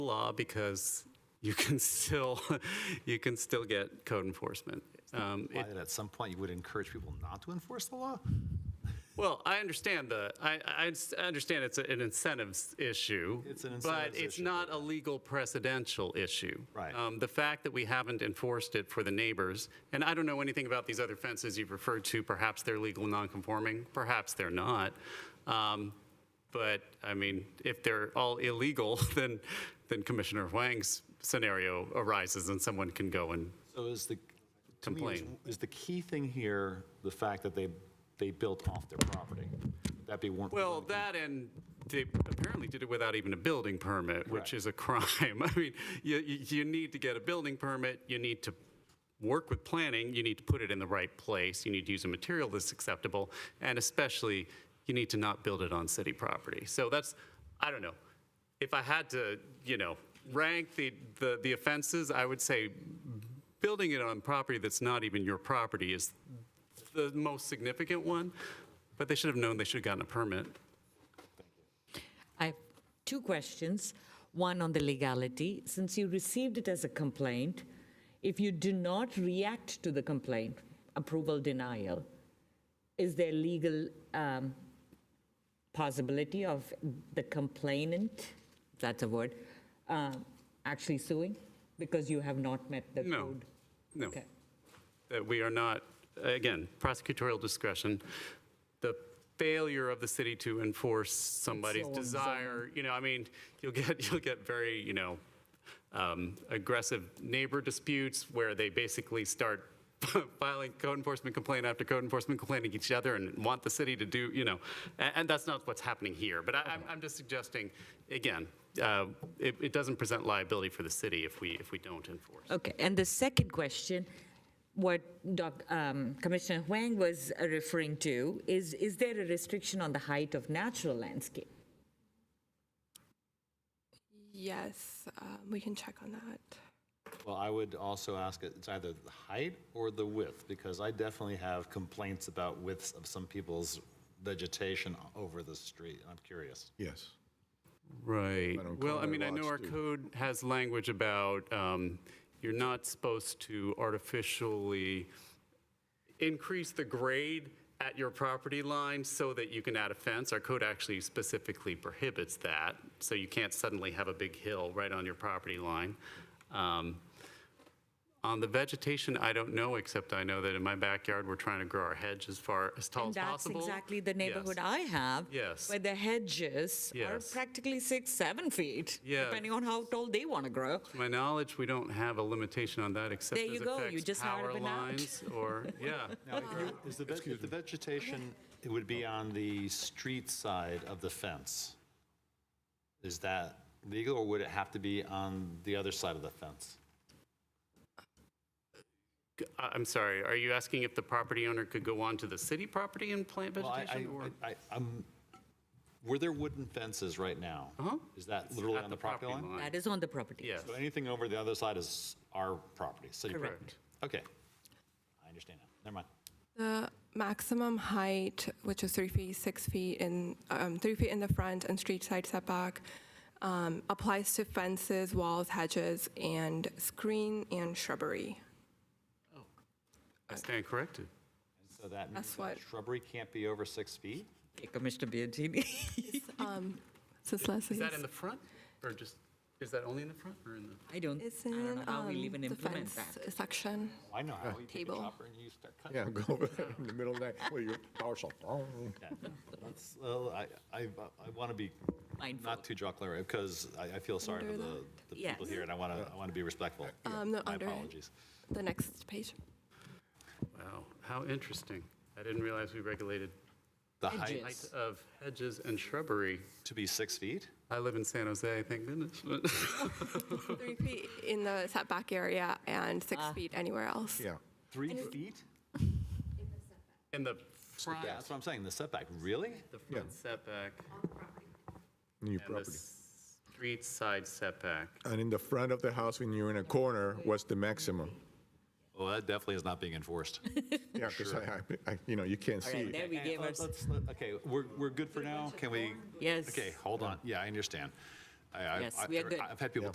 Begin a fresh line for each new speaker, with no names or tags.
law because you can still, you can still get code enforcement. Um,
Why, that at some point you would encourage people not to enforce the law?
Well, I understand the, I, I s- I understand it's an incentives issue.
It's an
But
incentives
it's
issue,
not a legal precedential issue.
Right.
Um, The fact that we haven't enforced it for the neighbors, and I don't know anything about these other fences you've referred to, perhaps they're legal nonconforming, perhaps they're not. Um, But, I mean, if they're all illegal, then, then Commissioner Wang's scenario arises and someone can go and,
So is the, to me, is-
Complain.
is the key thing here the fact that they, they built off their property? Would that be one?
well, that and they apparently did it without even a building permit, which
Correct.
is a crime. I mean, you, you you need to get a building permit, you need to work with planning, you need to put it in the right place, you need to use a material that's acceptable, and especially, you need to not build it on city property. So that's, I don't know. If I had to, you know, rank the, the the offenses, I would say building it on property that's not even your property is the most significant one, but they should have known they should have gotten a permit.
I have two questions. One on the legality. Since you received it as a complaint, if you do not react to the complaint, approval denial, is there legal um, possibility of the complainant, if that's a word, uh, actually suing because you have not met the
No,
code?
no.
Okay.
That we are not, again, prosecutorial discretion, the failure of the city to enforce somebody's
so unzoning.
desire, you know, I mean, you'll get, you'll get very, you know, um, aggressive neighbor disputes where they basically start filing code enforcement complaint after code enforcement complaint against each other and want the city to do, you know, and, and that's not what's happening here. But I, I'm, I'm just suggesting, again, uh, it, it doesn't present liability for the city if we, if we don't enforce.
Okay, and the second question, what Doc, um, Commissioner Huang was uh, referring to, is, is there a restriction on the height of natural landscape?
Yes, um, we can check on that.
Well, I would also ask, it- it's either the height or the width, because I definitely have complaints about widths of some people's vegetation over the street. I'm curious.
Yes.
Right.
don't
Well,
call
I
it
mean, I know
lots,
our
do we?
code has language about um, you're not supposed to artificially increase the grade at your property line so that you can add a fence. Our code actually specifically prohibits that, so you can't suddenly have a big hill right on your property line. Um, On the vegetation, I don't know, except I know that in my backyard, we're trying to grow our hedge as far, as tall as
That's
possible.
exactly the
Yes.
neighborhood I have.
Yes.
Where the hedges are
Yes.
practically six, seven feet.
Yeah.
Depending on how tall they want to grow.
To my knowledge, we don't have a limitation on that except
There
as
you go, you
affects
just hired
power
up an out.
lines or, yeah.
Is the, veg- the vegetation, it would be on the street side of the fence? Is that legal, or would it have to be on the other side of the fence?
I- I'm sorry, are you asking if the property owner could go onto the city property and plant
Well, I,
vegetation? or-
I, I, I'm, were there wooden fences right now?
Uh-huh.
Is that literally
At
on the property line?
That is on the property.
Yes,
So anything over the other side is our property, city property?
Correct.
Okay. I understand now. Never mind.
The maximum height, which is three feet, six feet in, um, three feet in the front and street side setback, um, applies to fences, walls, hedges, and screen and shrubbery.
I stand corrected.
And So that means
That's what-
that shrubbery can't be over six feet?
Okay, Commissioner Biagini.
Um, Says Leslie.
Is that in the front or just, is that only in the front or in the?
I don't,
It's
I don't
in
know how we'll
um,
even
the
implement
fence
that.
section.
I know how. You take a
Table.
chopper and you start cutting.
Yeah, go over there in the middle of the night, well, your dogs are,
That's, well, I, I, I want to be
Mindful.
not too jocular, because I, I feel sorry for
Under
the, the people
Yes.
here, and I want to, I want to be respectful.
Um, no,
My
under it.
apologies.
The next page.
Wow, how interesting. I didn't realize we regulated
The height
Hedges.
height of hedges and shrubbery.
to be six feet?
I live in San Jose, thank goodness. but-
Three feet in the setback area and six
Ah.
feet anywhere else.
yeah.
Three feet?
In the
Yeah,
front,
that's what I'm saying, the setback, really?
the front setback
In your
and the
property.
street side setback.
And in the front of the house, when you're in a corner, what's the maximum?
Well, that definitely is not being enforced.
Yeah, because I, I, you know, you can't
All
see.
right, there we gave
Let's-
us,
Uh, let's- let- Okay, we're, we're good for now, can we?
Yes.
Okay, hold on, yeah, I understand. I- I-
Yes,
I-
we are good.
I've had people